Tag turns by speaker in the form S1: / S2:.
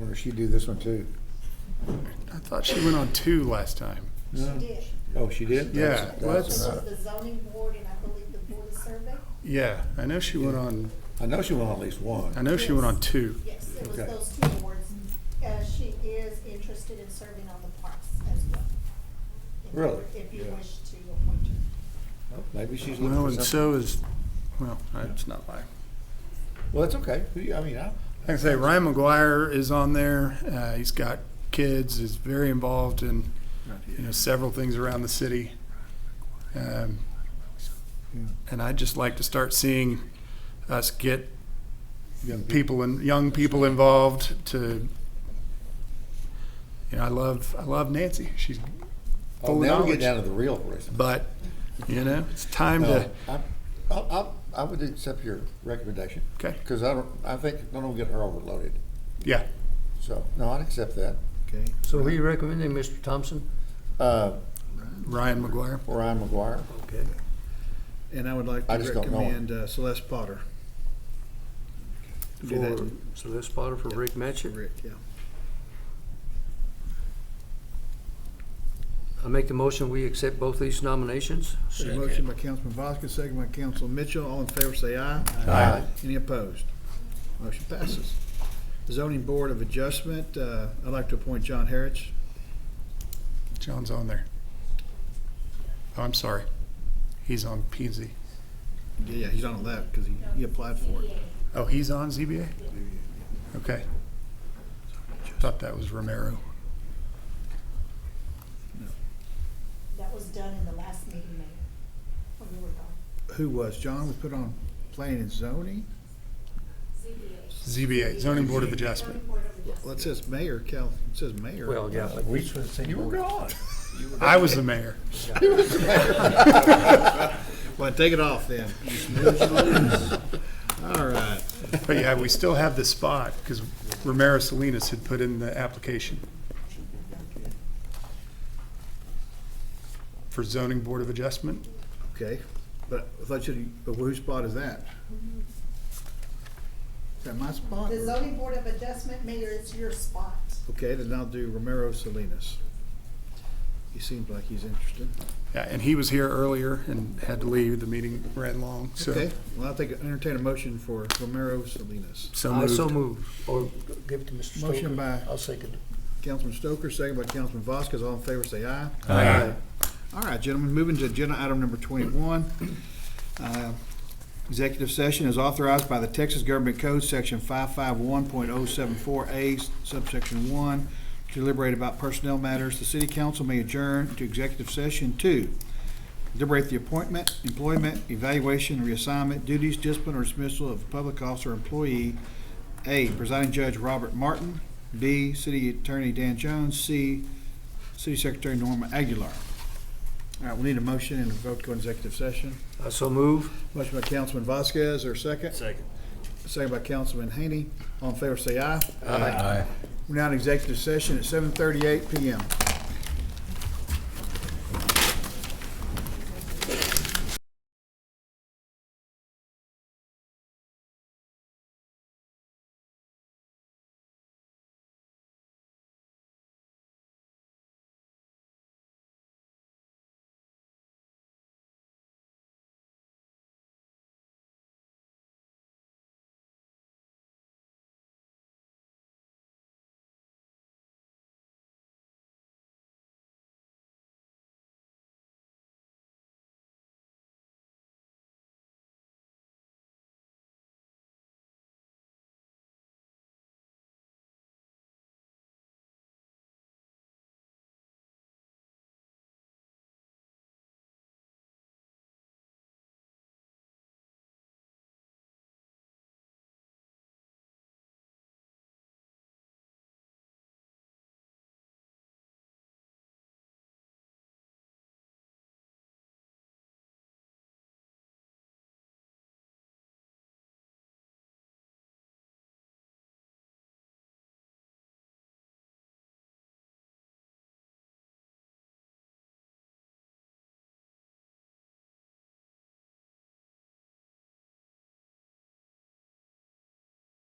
S1: or she do this one too?
S2: I thought she went on two last time.
S1: No.
S3: She did.
S1: Oh, she did?
S2: Yeah,
S1: That's- that's
S2: let's,
S3: This is
S1: enough.
S3: the zoning board and I believe the board of survey.
S2: yeah, I know she went on,
S1: I know she won at least
S2: I
S1: one.
S2: know she went on two.
S3: Yes, it was
S1: Okay.
S3: those two boards. Uh, she is interested in serving on the parks as well. If you-
S1: Really?
S3: If you
S1: Yeah.
S3: wish to appoint her.
S1: Oh, Maybe she's
S2: Well,
S1: looking
S2: and
S1: for something.
S2: so is, well, it's not my,
S1: Well, that's okay. Who you- I mean, I,
S2: like I say, Ryan McGuire is on there. Uh, he's got kids, is very involved in, you know, several things around the city. Um, and I'd just like to start seeing us get
S1: young people,
S2: people and young people involved to you know, I love I love Nancy. She's
S1: oh,
S2: full of
S1: now we
S2: knowledge. uh,
S1: get down to the real Uh, person.
S2: But you know, it's time
S1: No,
S2: to
S1: I, I, I- I would accept your recommendation.
S2: Okay.
S1: Because I don't, I think, I don't get her overloaded.
S2: yeah.
S1: So, no, I'd accept that.
S4: Okay, so who you recommending, Mr. Thompson?
S1: Uh,
S2: Ryan McGuire.
S1: Ryan McGuire.
S4: Okay. And I would like
S1: I
S4: to
S1: just don't know him.
S4: recommend uh, Celeste Potter. Do that
S5: For,
S4: to
S5: so that's Potter for Rick Matchett.
S4: Rick, yeah.
S5: I make the motion, we accept both these nominations.
S4: There's a motion by Councilman Voskis, second by Councilman Mitchell. All in favor, say aye.
S1: Aye.
S4: Any opposed? Motion passes. Zoning Board of Adjustment, uh, I'd like to appoint John Harris.
S2: John's on there. Oh, I'm sorry. He's on PZ.
S4: Yeah, he's on the left because he, he applied for it.
S2: Oh, he's on ZBA? Okay. Thought that was Romero.
S3: That was done in the last meeting, Mayor, when you were gone.
S4: Who was? John was put on planning and zoning?
S2: ZBA, zoning board of adjustment.
S4: Well, it says mayor, Cal, it says mayor.
S5: Well, yeah, but
S1: We should say you were gone.
S2: I was the mayor.
S4: Well, take it off then. All right.
S2: But yeah, we still have the spot because Romero Salinas had put in the application. For zoning board of adjustment,
S4: Okay, but I thought you, but whose spot is that? Is that my spot?
S3: The zoning board of adjustment, Mayor, it's your spot.
S4: Okay, then I'll do Romero Salinas. He seems like he's interested.
S2: yeah, and he was here earlier and had to leave, the meeting ran long, so,
S4: Okay, well, I'll take, entertain a motion for Romero Salinas.
S2: so
S5: I so
S2: moved.
S5: move, or give it to Mr. Stoker.
S4: Motion by-
S5: I'll second.
S4: Councilman Stoker, second by Councilman Vasquez, all in favor, say aye. Aye. All right, gentlemen, moving to agenda item number twenty-one. Uh, Executive session is authorized by the Texas Government Code, section oh five-five-one-point-oh-seven-four-A, subsection one, to deliberate about personnel matters. The city council may adjourn to executive session two. Deliberate the appointment, employment, evaluation, reassignment, duties, discipline, or dismissal of a public officer or employee. A, presiding judge Robert Martin. B, city attorney Dan Jones. C, city secretary Norma Aguilar. All right, we need a motion and a vote to go into executive session.
S5: I so move.
S4: Motion by Councilman Vasquez, or second.
S5: Second.
S4: Second by Councilman Haney. All in favor, say aye.
S5: Aye.
S4: We're now in executive session at seven thirty-eight PM.